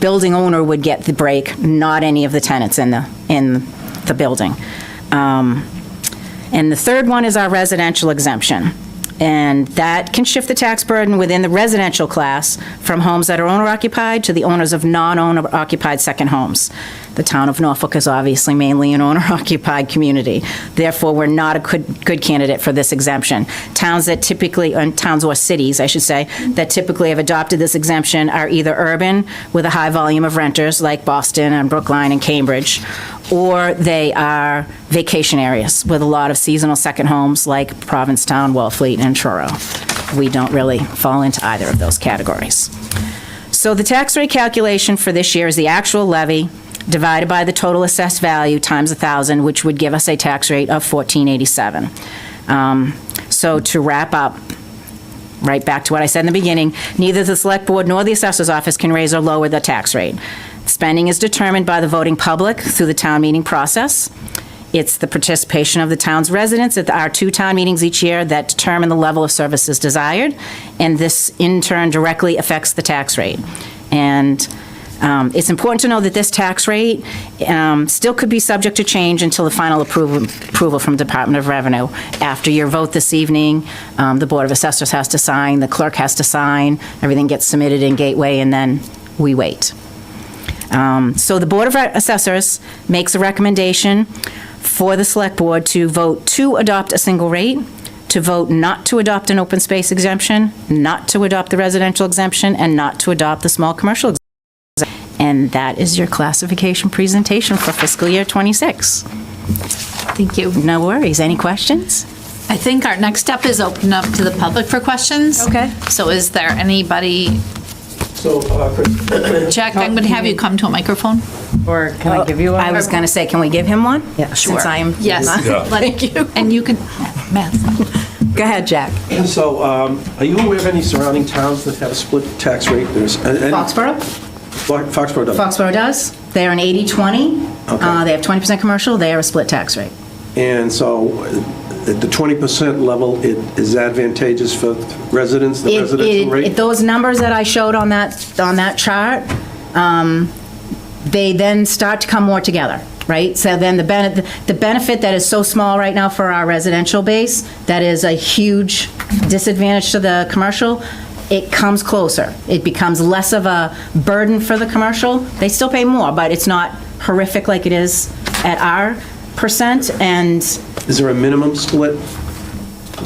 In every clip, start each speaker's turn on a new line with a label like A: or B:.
A: building owner would get the break, not any of the tenants in the, in the building. Um, And the third one is our residential exemption. And that can shift the tax burden within the residential class from homes that are owner occupied to the owners of non-owner occupied second homes. The town of Norfolk is obviously mainly an owner occupied community. Therefore, we're not a good, good candidate for this exemption. Towns that typically, and towns or cities, I should say, that typically have adopted this exemption are either urban with a high volume of renters like Boston and Brookline and Cambridge, or they are vacation areas with a lot of seasonal second homes like Provincetown, Wellfleet, and Truro. We don't really fall into either of those categories. So the tax rate calculation for this year is the actual levy divided by the total assessed value times 1,000, which would give us a tax rate of 1487. Um, So to wrap up, right back to what I said in the beginning, neither the Select Board nor the Assessor's Office can raise or lower the tax rate. Spending is determined by the voting public through the town meeting process. It's the participation of the town's residents at our two town meetings each year that determine the level of services desired, and this in turn directly affects the tax rate. And um, It's important to know that this tax rate um, still could be subject to change until the final approval approval from Department of Revenue. After your vote this evening, um, the Board of Assessors has to sign, the clerk has to sign, everything gets submitted in Gateway, and then we wait. Um, So the Board of Assessors makes a recommendation for the Select Board to vote to adopt a single rate, to vote not to adopt an open space exemption, not to adopt the residential exemption, and not to adopt the small commercial exemption. And that is your classification presentation for fiscal year '26.
B: Thank you.
A: No worries. Any questions?
B: I think our next step is open up to the public for questions.
A: Okay.
B: So is there anybody,
C: So, uh, Chris,
B: Jack, I'm going to have you come to a microphone.
D: Or can I give you one?
A: I was going to say, can we give him one?
D: Yeah,
A: Since I am.
B: Yes. Thank you. And you can, Matt.
D: Go ahead, Jack.
C: so um, are you aware of any surrounding towns that have a split tax rate? There's and- and-
A: Foxborough?
C: Fo- Foxborough does.
A: Foxborough does. They're an 80/20. Uh, They have 20% commercial. They are a split tax rate.
C: And so uh, at the 20% level, it is advantageous for residents, the
A: It-
C: residential
A: it-
C: rate?
A: it- Those numbers that I showed on that, on that chart, um, they then start to come more together, right? So then the benefit, the benefit that is so small right now for our residential base, that is a huge disadvantage to the commercial, it comes closer. It becomes less of a burden for the commercial. They still pay more, but it's not horrific like it is at our percent, and
C: Is there a minimum split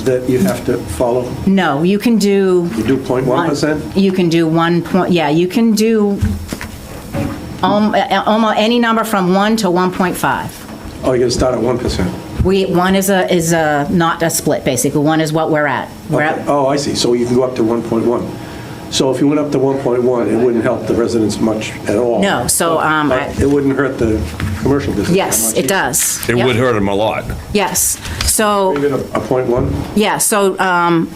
C: that you have to follow?
A: no, you can do.
C: You do 0.1%?
A: One- You can do one point, yeah, you can do uh, almost any number from 1 to 1.5.
C: Oh, you're going to start at 1%?
A: We, one is a, is a, not a split, basically, one is what we're at. We're
C: Okay.
A: at,
C: Oh, I see, so you can go up to 1.1. So if you went up to 1.1, it wouldn't help the residents much at all?
A: No, so, um, I-
C: But It wouldn't hurt the commercial business? that
A: yes,
C: much
A: it
C: either.
A: does.
E: It
A: Yep.
E: would hurt them a lot.
A: Yes, so.
C: Even a a point one?
A: Yeah, so, um,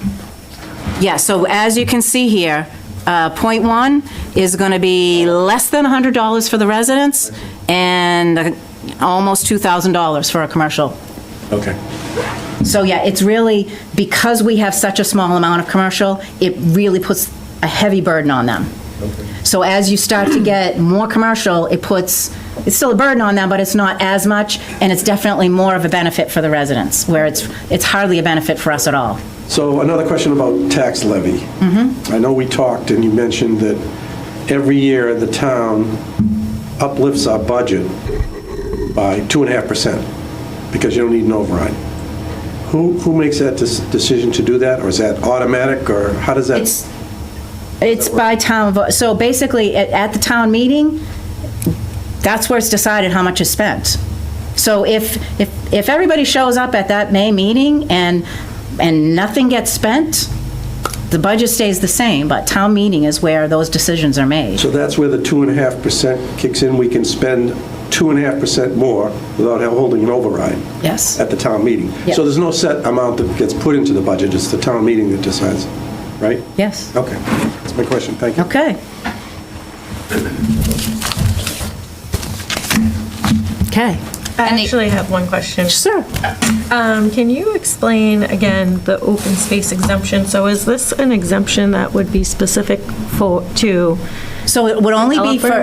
A: yeah, so as you can see here, uh, point one is going to be less than $100 for the residents and uh, almost $2,000 for a commercial.
C: Okay.
A: So, yeah, it's really, because we have such a small amount of commercial, it really puts a heavy burden on them. So as you start to get more commercial, it puts, it's still a burden on them, but it's not as much, and it's definitely more of a benefit for the residents, where it's, it's hardly a benefit for us at all.
C: So another question about tax levy. I know we talked and you mentioned that every year the town uplifts our budget by two and a half percent because you don't need an override. Who, who makes that des- decision to do that? Or is that automatic or how does that?
A: It's, it's by town, vote. so basically, at, at the town meeting, that's where it's decided how much is spent. So if, if, if everybody shows up at that May meeting and, and nothing gets spent, the budget stays the same, but town meeting is where those decisions are made.
C: So that's where the two and a half percent kicks in. We can spend two and a half percent more without holding an override.
A: Yes.
C: At the town meeting.
A: Yeah.
C: So there's no set amount that gets put into the budget. It's the town meeting that decides, right?
A: Yes.
C: Okay, that's my question, thank you.
A: Okay. Okay.
B: Any-
F: I actually have one question.
A: Sure.
F: Um, Can you explain again the open space exemption? So is this an exemption that would be specific for, to
A: So it would only be for,
F: Developers?